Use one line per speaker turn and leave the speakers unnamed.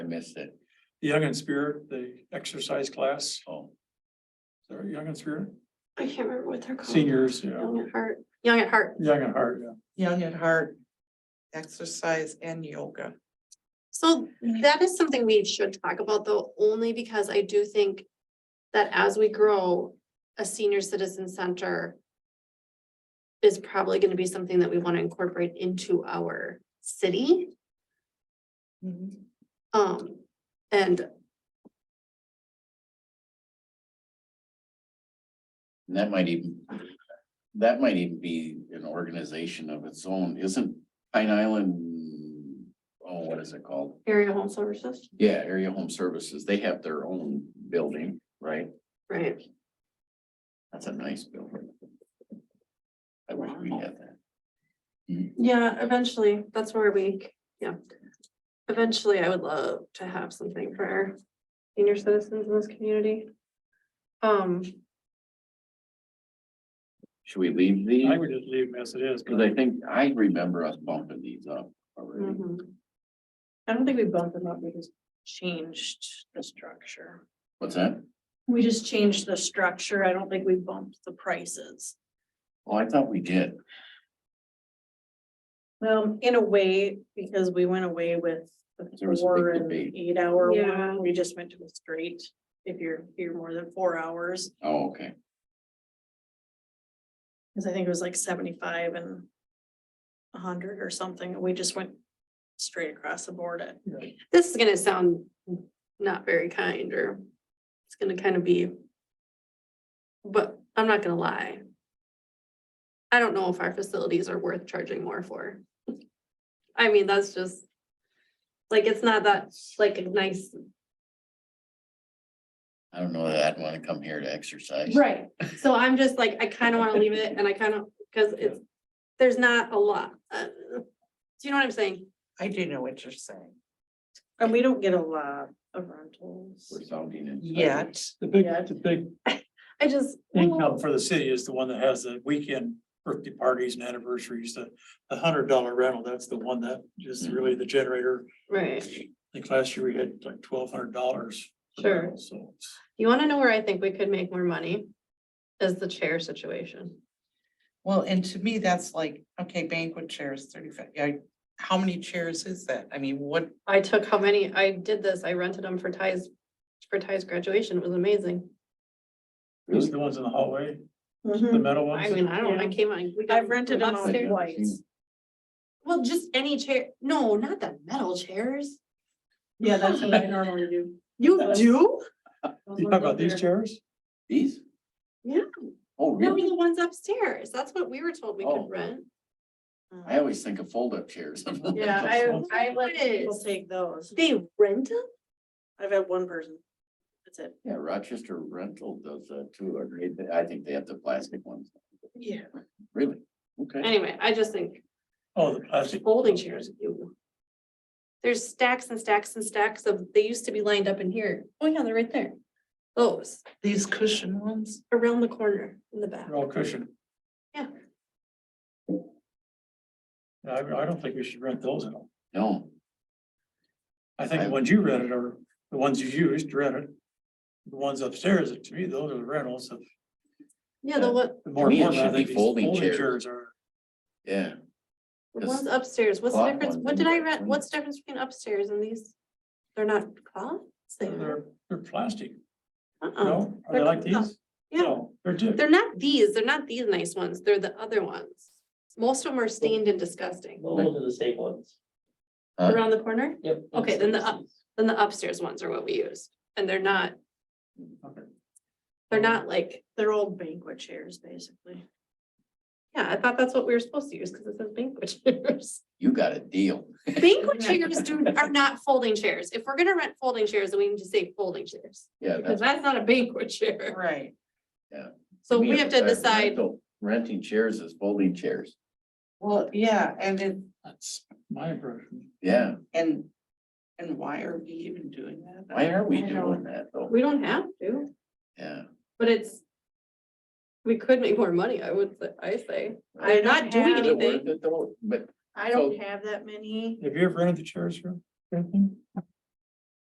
missed it.
the Young and Spirit, the exercise class, so. Is there a Young and Spirit?
I can't remember what they're called.
Seniors, yeah,
Young at Heart, Young at Heart.
Young at Heart, yeah.
Young at Heart, exercise and yoga.
So that is something we should talk about though, only because I do think that as we grow, a senior citizen center is probably gonna be something that we wanna incorporate into our city,
Mm-hmm.
um, and
And that might even, that might even be an organization of its own, isn't Pine Island? Oh, what is it called?
area home services,
Yeah, Area Home Services, they have their own building, right?
right?
That's a nice building. I wish we had that.
Yeah, eventually, that's where we, yeah. Eventually, I would love to have something for our senior citizens in this community. Um,
Should we leave the?
I would just leave them as it is.
Cause I think I remember us bumping these up already.
mhm.
Mm-hmm. I don't think we bumped them up, we just changed the structure.
What's that?
We just changed the structure, I don't think we bumped the prices.
Oh, I thought we did.
Well, Um, in a way, because we went away with
There
the
was a big
four and
debate.
eight hour
Yeah.
one, we just went to a straight. If you're here more than four hours,
Oh, okay.
because I think it was like seventy-five and hundred or something, we just went straight across the board at
this is gonna sound not very kind, or it's gonna kind of be. But I'm not gonna lie. I don't know if our facilities are worth charging more for. I mean, that's just. Like, it's not that, like, a nice
I don't know that I'd wanna come here to exercise.
Right, so I'm just like, I kinda wanna leave it and I kinda, cause it's, there's not a lot. uh, Do you know what I'm saying?
I do know what you're saying.
And we don't get a lot of rentals.
We're sounding it.
Yet,
The big,
Yeah.
the big
I just.
income for the city is the one that has the weekend birthday parties and anniversaries, the, the hundred dollar rental, that's the one that is really the generator.
Right,
I think last year we had like twelve hundred dollars.
Sure.
So it's-
you wanna know where I think we could make more money? Is the chair situation.
well, and to me, that's like, okay, banquet chairs, thirty-five, yeah, how many chairs is that? I mean, what,
I took how many, I did this, I rented them for Ty's, for Ty's graduation, it was amazing.
it's the ones in the hallway, the
Mhm.
metal ones.
I mean, I don't, I
Yeah.
came on. we got
I've rented them out
upstairs.
twice.
Well, just any chair, no, not the metal chairs.
Yeah, that's what I normally do.
You do?
You talk about these chairs?
These?
Yeah.
Oh,
No,
really?
the ones upstairs, that's what we were told we
Oh.
could rent.
I always think of fold up chairs.
Yeah, I, I let people
Yes.
take those.
They rent them?
I've had one person. That's it.
Yeah, Rochester Rental does that too. I agree. They- I think they have the plastic ones.
Yeah.
Really? Okay.
Anyway, I just think
Oh, the plastic.
folding chairs. ew. There's stacks and stacks and stacks of, they used to be lined up in here. Oh yeah, they're right there. Those
these cushion ones?
around the corner in the back.
They're all cushioned.
Yeah.
I, I don't think we should rent those at all.
No,
I think the ones you rented are the ones you used rented. The ones upstairs, to me, those are the rentals of.
Yeah, the one,
the
To
more
me, it
important, I
should be
think these
folding chairs.
Are,
yeah.
the
Yes.
ones upstairs, what's the
Cloth
difference,
ones
what did I
anyway.
rent, what's the difference between upstairs and these? They're not cloths? They are.
they're, they're plastic,
Uh-uh,
no? Are they like these?
yeah,
No, They're di-
they're not these, they're not these nice ones, they're the other ones. Most of them are stained and disgusting.
Those are the same ones.
Huh?
Around the corner?
Yep.
Okay, then the uh, up- Then the upstairs ones are what we use, and they're not,
Okay.
they're not like,
They're old banquet chairs, basically.
yeah, I thought that's what we were supposed to use, because it says banquet chairs.
You got a deal.
Banquet chairs do, are not folding chairs, if we're gonna rent folding chairs, then we need to say folding chairs,
Yeah,
because
that's.
that's not a banquet chair,
Right,
so
me,
we have to
it's like
decide.
rental- Renting chairs is folding chairs.
well, yeah, and it,
That's my impression.
Yeah.
and, and why are we even doing that?
Why are we
I don't-
doing that though?
We don't have to,
Yeah.
but it's. We could make more money, I would, say- I say,
I
I'm not doing
don't have-
Is it worth
anything,
it though? But
I don't have that many.
Have you ever rented the chairs for anything?